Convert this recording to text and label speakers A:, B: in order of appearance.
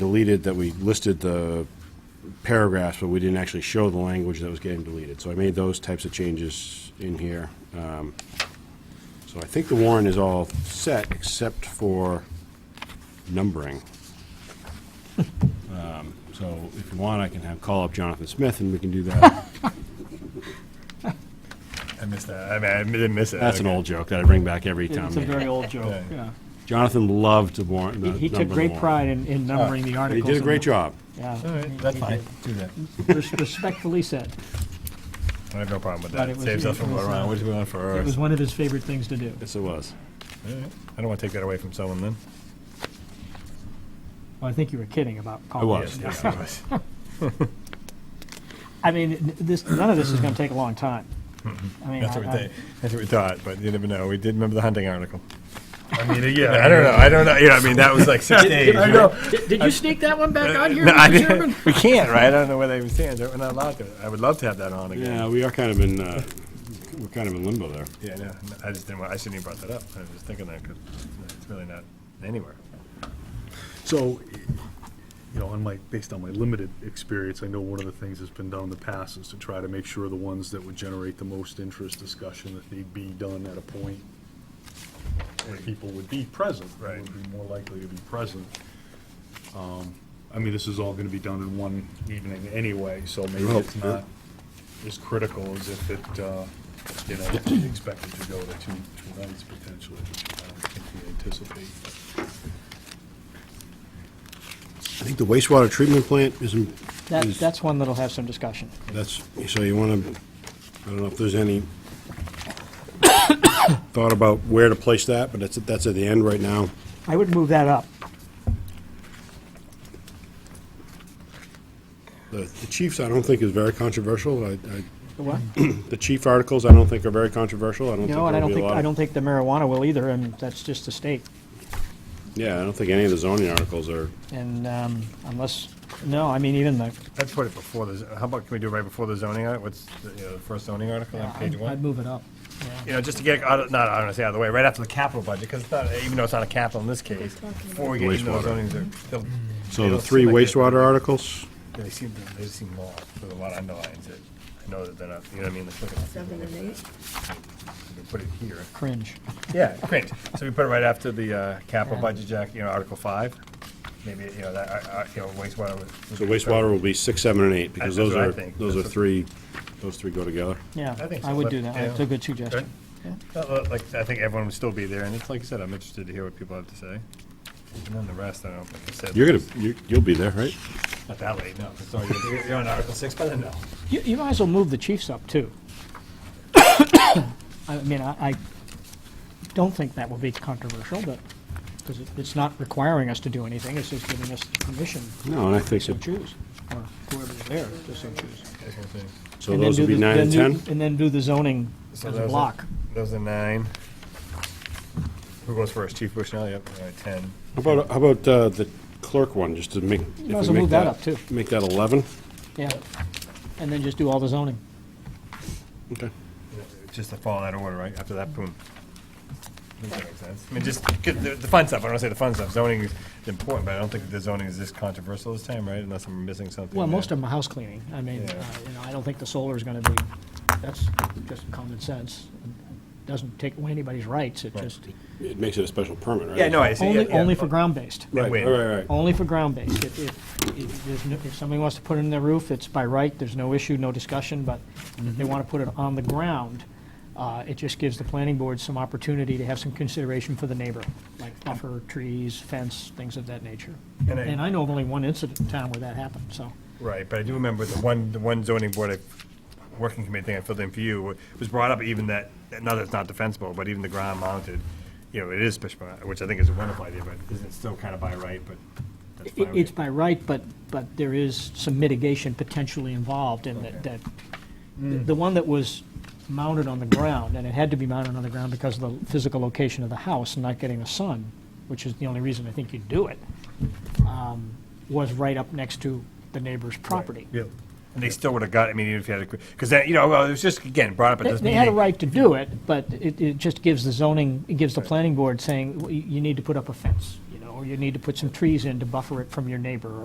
A: deleted that we listed the paragraphs, but we didn't actually show the language that was getting deleted. So I made those types of changes in here. Um, So I think the warrant is all set, except for numbering. Um, So if you want, I can have, call up Jonathan Smith, and we can do that.
B: I missed that. I mean, I didn't miss it.
A: That's an
B: Okay.
A: old joke that I bring back every time.
C: It's a very old joke,
B: Yeah.
C: yeah.
A: Jonathan loved the warrant.
C: He- He took great pride in, in numbering the
A: Ah, He
C: articles.
A: did a
C: and
A: great
C: the-
A: job.
B: All
C: Yeah.
B: right, that's fine. Do that.
C: Hmm? Res- Respectfully said,
B: I have no problem with
C: But
B: that.
C: it was-
B: Saves us
C: it
B: from
C: was,
B: going around.
C: uh,
B: What do we want for
C: it
B: ours?
C: was one of his favorite things to do.
A: Yes, it was.
B: I don't want to take that away from someone then.
C: Well, I think you were kidding about
A: I
C: calling.
A: was.
B: Yes, it was.
C: I mean, n- this, none of this is gonna take a long time. I mean,
B: That's what we
C: I- I-
B: think. That's what we thought, but you never know. We did remember the hunting article.
D: I mean, yeah.
B: I don't know. I don't know. Yeah, I mean, that was like six days.
D: I
B: right?
D: know.
C: Did did you sneak that one back on here,
B: No, I
C: Mr.
B: didn't-
C: Chairman?
B: We can't, right? I don't know where they even stand. We're not allowed to. I would love to have that on
A: Yeah,
B: again.
A: we are kind of in, uh, we're kind of in limbo there.
B: Yeah, no, no, I just didn't want, I shouldn't even brought that up. I was just thinking that because it's really not anywhere.
D: So, you know, on my, based on my limited experience, I know one of the things that's been done in the past is to try to make sure the ones that would generate the most interest discussion, that they be done at a point where people would be present,
B: Right.
D: would be more likely to be present. Um, I mean, this is all gonna be done in one evening anyway, so maybe
A: Well,
D: it's not as critical as if it, uh, you know, expected to go to two, two nights potentially, which I don't think we anticipate.
A: I think the wastewater treatment plant isn't,
C: That, that's one that'll have some discussion.
A: that's, so you want to, I don't know if there's any thought about where to place that, but that's, that's at the end right now.
C: I would move that up.
A: The the chiefs, I don't think is very controversial. I, I,
C: The what?
A: the chief articles, I don't think are very controversial. I don't think
C: No, and I
A: there'll
C: don't
A: be a
C: think,
A: lot.
C: I
A: of-
C: don't think the marijuana will either, and that's just the state.
A: Yeah, I don't think any of the zoning articles are,
C: And um, unless, no, I mean, even the,
B: I'd put it before the, how about, can we do it right before the zoning, art- what's, the, you know, the first zoning article on page
C: uh, I'd
B: one?
C: I'd move it up.
B: you know, just to get, out of- not, I don't want to say out of the way, right after the capital budget, because it's not, even though it's not a capital in this case, before we get into those
A: Wastewater.
B: zonings, they're- they'll-
A: so
B: they
A: the
B: don't
A: three
B: seem like they-
A: wastewater articles?
B: They seem, they seem long, there's a lot of underlines that, I know that they're not, you know what I mean? Let's look at this.
E: Seven and eight?
B: We can Put it here.
C: Cringe.
B: Yeah, great. So we put it right after the uh, capital budget, Jack, you know, Article 5, maybe, you know, that, uh, uh, you know, wastewater. would-
A: So wastewater will be six, seven, and eight, because
B: That's
A: those
B: what I
A: are,
B: think.
A: those are
B: That's what-
A: three, those three go together.
C: Yeah,
B: I think
C: I
B: so,
C: would
B: but,
C: do that.
B: yeah.
C: That's a good suggestion. Yeah.
B: Uh, uh, Like, I think everyone would still be there, and it's like I said, I'm interested to hear what people have to say. And then the rest, I don't, know, like I said.
A: You're gonna, you, you'll be there, right?
B: Not that late, no. Sorry, you're, you're on Article Six, but then no.
C: You, you might as well move the chiefs up, too. I mean, I, I don't think that will be controversial, but, because it's not requiring us to do anything, it's just giving us permission
A: No, and I think,
C: to
A: so.
C: choose, or whoever's there to so choose.
A: so
C: And then
A: those
C: do
A: will be
C: the-
A: nine and
C: then do-
A: 10?
C: And then do the zoning as
B: So
C: a
B: those are-
C: block.
B: Those are nine. Who goes first? Chief Bushnell, yep, all right, ten.
A: How about, how about uh, the clerk one, just to make, if
C: might as
A: we
C: well
A: make
C: move that
A: that,
C: up, too.
A: make that 11?
C: Yeah, and then just do all the zoning.
A: Okay.
B: Just to follow that order, right? After that, boom. I think that makes sense. I mean, just, 'cause the, the fun stuff, I don't wanna say the fun stuff, zoning is important, but I don't think the zoning is this controversial this time, right? Unless I'm missing something.
C: Well,
B: there.
C: most of them are house cleaning. I mean,
B: Yeah.
C: uh, you know, I don't think the solar is gonna be, that's just common sense. Doesn't take away anybody's rights, it
B: Right.
C: just,
A: It makes it a special permit, right?
B: Yeah, no, I see. yeah,
C: only,
B: yeah.
C: only for ground-based.
A: Right,
B: Wait.
A: right, right, right.
C: Only for ground-based. If, if, if there's no- if somebody wants to put it in their roof, it's by right, there's no issue, no discussion, but if
B: Mm-hmm.
C: they want to put it on the ground, uh, it just gives the planning board some opportunity to have some consideration for the neighbor, like buffer, trees, fence, things of that nature.
B: And I-
C: And I know of only one incident in town where that happened, so.
B: Right, but I do remember the one, the one zoning board, I- working committee thing I filled in for you, was brought up even that, not that it's not defensible, but even the ground mounted, you know, it is special, which I think is a wonderful idea, but isn't it still kind of by right, but that's
C: It-
B: fine.
C: It's by right, but, but there is some mitigation potentially involved in that, that, the one that was mounted on the ground, and it had to be mounted on the ground because of the physical location of the house and not getting the sun, which is the only reason I think you'd do it, um, was right up next to the neighbor's property.
B: Yeah. And they still would have got, I mean, even if you had a, because that, you know, well, it was just, again, brought up at
C: They
B: this meeting.
C: they had a right to do it, but it, it just gives the zoning, it gives the planning board saying, "Well, you you need to put up a fence, you know, or you need to put some trees in to buffer it from your neighbor,